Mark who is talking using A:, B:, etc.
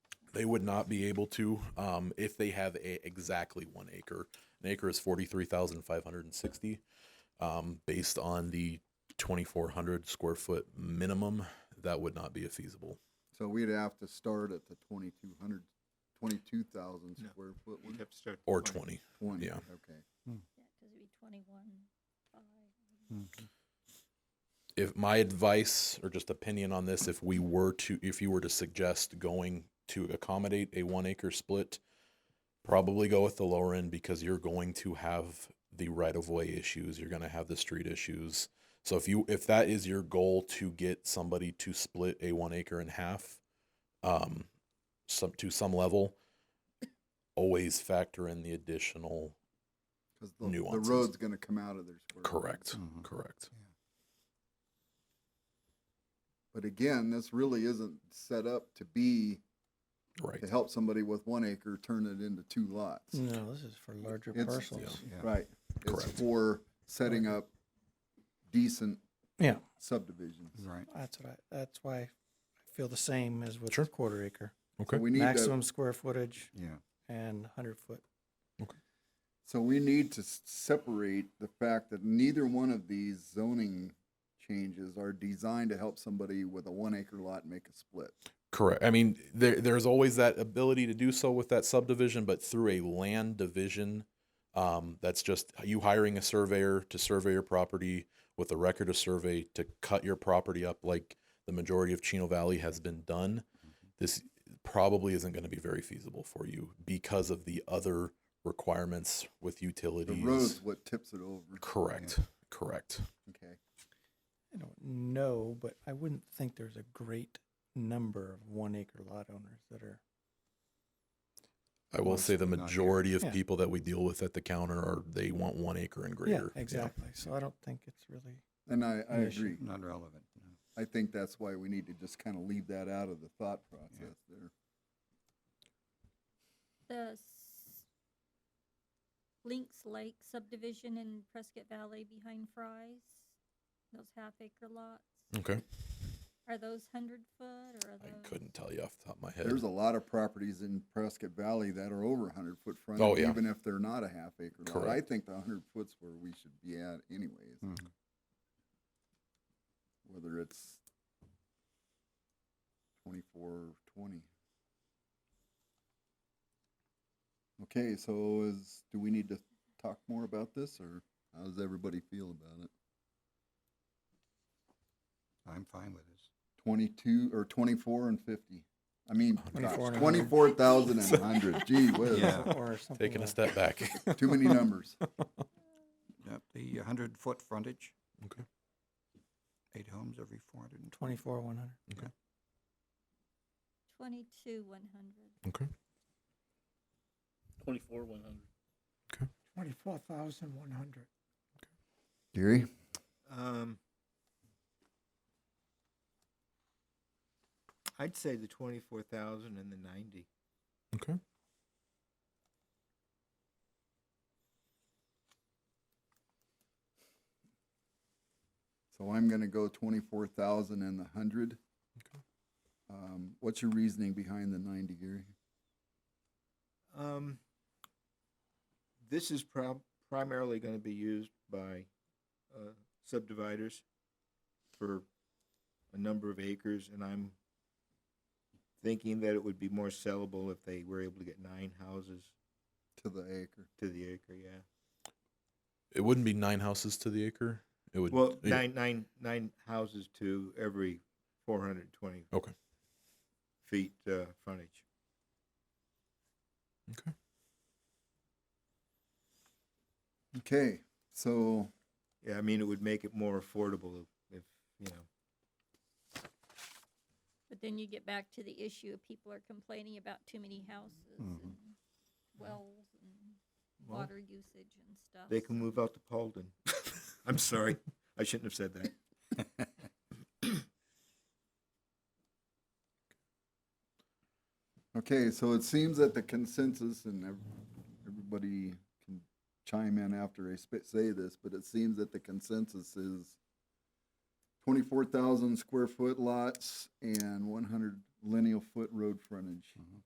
A: They would not be able to um, if they have a, exactly one acre. An acre is forty-three thousand five hundred and sixty, um, based on the twenty-four hundred square foot minimum. That would not be a feasible.
B: So we'd have to start at the 2,200, 22,000
C: No.
B: square foot
C: You'd
B: one,
C: have to start at
A: Or
C: the point.
A: 20.
B: 20,
A: Yeah.
B: okay.
D: Yeah, cause it'd be twenty-one, five.
A: If my advice or just opinion on this, if we were to, if you were to suggest going to accommodate a one acre split, probably go with the lower end because you're going to have the right of way issues. You're going to have the street issues. So if you, if that is your goal to get somebody to split a one acre in half, um, some, to some level, always factor in the additional.
B: Because the, the
A: Nuances.
B: road's gonna come out of their square. footage.
A: Correct.
E: Mm-hmm.
A: Correct.
B: But again, this really isn't set up to be,
A: Right.
B: to help somebody with one acre turn it into two lots.
F: No, this is for larger
B: It's-
F: parcels.
B: Right. It's
A: Correct.
B: for setting up decent
F: Yeah.
B: subdivisions. Right.
F: That's what I, that's why I feel the same as with
A: Sure.
F: quarter acre.
A: Okay.
B: We need to,
F: Maximum square footage
B: yeah.
F: and hundred foot.
B: So we need to s- separate the fact that neither one of these zoning changes are designed to help somebody with a one acre lot make a split.
A: Correct. I mean, there, there's always that ability to do so with that subdivision, but through a land division, um, that's just you hiring a surveyor to survey your property with a record of survey to cut your property up like the majority of Chino Valley has been done. This probably isn't going to be very feasible for you because of the other requirements with
B: The
A: utilities.
B: road's what tips it over.
A: Correct. Correct.
B: Yeah, Okay.
F: I don't know, but I wouldn't think there's a great number of one acre lot owners that are,
A: I will say the majority of
F: Yeah.
A: people that we deal with at the counter are they want one acre and
F: yeah,
A: greater.
F: exactly. So I don't think it's really,
B: And I, I
F: An issue.
B: agree.
E: Not relevant. no.
B: I think that's why we need to just kind of leave that out of the thought process there.
D: The s- Lynx Lake subdivision in Prescott Valley behind Fry's, those half acre lots,
A: Okay.
D: are those hundred foot or are
A: I
D: those?
A: couldn't tell you off the top of my head.
B: There's a lot of properties in Prescott Valley that are over hundred foot front,
A: Oh, yeah.
B: even if they're not a half acre lot. I
A: Correct. Hmm.
B: think the hundred foot's where we should be at anyways.
E: Mhm.
B: Whether it's twenty-four or twenty. Okay, so is, do we need to talk more about this or how does everybody feel about it?
E: I'm fine with this.
B: Twenty-two or twenty-four and fifty? I mean,
F: 24 and a hundred.
B: twenty-four thousand and a hundred, gee whiz.
E: Yeah.
F: or something.
A: Taking a
F: like-
A: step back.
B: Too many numbers.
E: Yep, the hundred foot frontage.
A: Okay.
E: Eight homes every four hundred and twenty.
F: Twenty-four, one hundred.
D: Twenty-two, one hundred.
A: okay.
G: Twenty-four, one hundred.
H: Twenty-four thousand one hundred.
B: Gary?
C: Um, I'd say the twenty-four thousand and the ninety.
A: Okay.
B: So I'm gonna go twenty-four thousand and the hundred.
A: Okay.
B: Um, what's your reasoning behind the ninety, Gary?
C: Um, this is prob- primarily going to be used by uh, subdividers for a number of acres, and I'm thinking that it would be more sellable if they were able to get nine houses
B: To the acre.
C: to the acre. Yeah,
A: It wouldn't be nine houses to the acre. It would.
C: well,
A: it-
C: nine, nine, nine houses to every 420
A: Okay.
C: feet uh, frontage.
A: Okay.
B: Okay, so
C: Yeah, I mean it would make it more affordable if you know.
D: But then you get back to the issue of people are complaining about too many houses
E: Mhm.
D: and wells and
C: Mm-hmm. Well,
D: water usage and stuff.
C: They can move out to Paulden. I'm sorry. I shouldn't have said that.
B: Okay, so it seems that the consensus, and ev- everybody can chime in after I sp- say this, but it seems that the consensus is twenty-four thousand square foot lots and one hundred lineal foot road frontage.
E: Mhm.